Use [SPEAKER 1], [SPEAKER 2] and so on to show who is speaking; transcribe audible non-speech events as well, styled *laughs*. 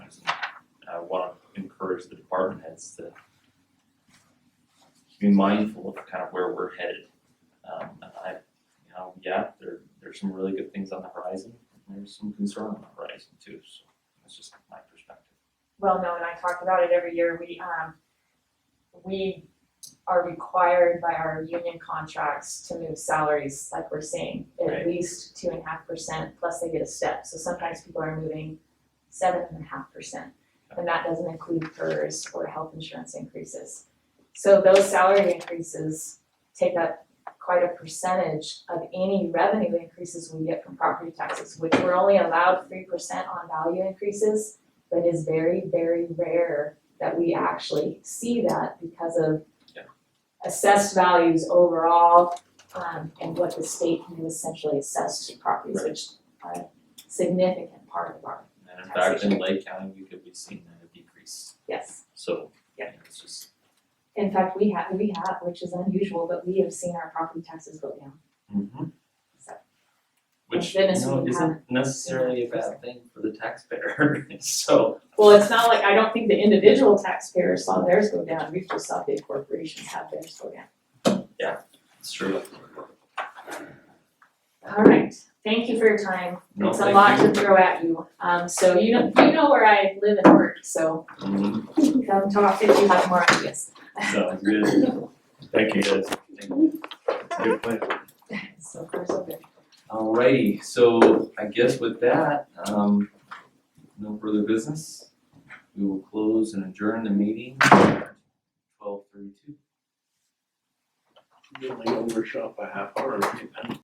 [SPEAKER 1] department heads to be mindful of kind of where we're headed. Um, and I, you know, yeah, there, there's some really good things on the horizon, and there's some concern on the horizon too, so that's just my perspective.
[SPEAKER 2] well known, I talk about it every year, we, um, we are required by our union contracts to move salaries, like we're saying,
[SPEAKER 1] Right.
[SPEAKER 2] at least two and a half percent, plus they get a step, so sometimes people are moving seven and a half percent. And that doesn't include PERS or health insurance increases. So those salary increases take up quite a percentage of any revenue increases we get from property taxes, which we're only allowed three percent on value increases. But it is very, very rare that we actually see that because of
[SPEAKER 1] Yeah.
[SPEAKER 2] assessed values overall, um, and what the state can essentially assess to properties,
[SPEAKER 1] Right.
[SPEAKER 2] which are a significant part of our,
[SPEAKER 1] And in fact, in Lake County, we could be seeing a decrease,
[SPEAKER 2] yes.
[SPEAKER 1] so, you
[SPEAKER 2] Yeah.
[SPEAKER 1] know, it's just,
[SPEAKER 2] In fact, we have, we have, which is unusual, but we have seen our property taxes go down, so.
[SPEAKER 1] mm-hmm. Which, you
[SPEAKER 2] goodness,
[SPEAKER 1] know,
[SPEAKER 2] we
[SPEAKER 1] isn't necessarily a bad thing for the taxpayer, *laughs* so,
[SPEAKER 2] Well, it's not like, I don't think the individual taxpayers saw theirs go down, we just saw big corporations have theirs go down.
[SPEAKER 1] it's true.
[SPEAKER 2] All right, thank you for your time.
[SPEAKER 1] No,
[SPEAKER 2] It's a
[SPEAKER 1] thank
[SPEAKER 2] lot
[SPEAKER 1] you.
[SPEAKER 2] to throw at you, um, so you know, you know where I live and work, so
[SPEAKER 1] Mhm.
[SPEAKER 2] come talk if you have more ideas.
[SPEAKER 1] Sounds good.
[SPEAKER 3] Thank you guys.
[SPEAKER 1] Thank you.
[SPEAKER 3] Good plan.
[SPEAKER 2] So far, so good.
[SPEAKER 1] Alrighty, so I guess with that, um, no further business. We will close and adjourn the meeting at twelve thirty-two.
[SPEAKER 3] You only overshot by half hour.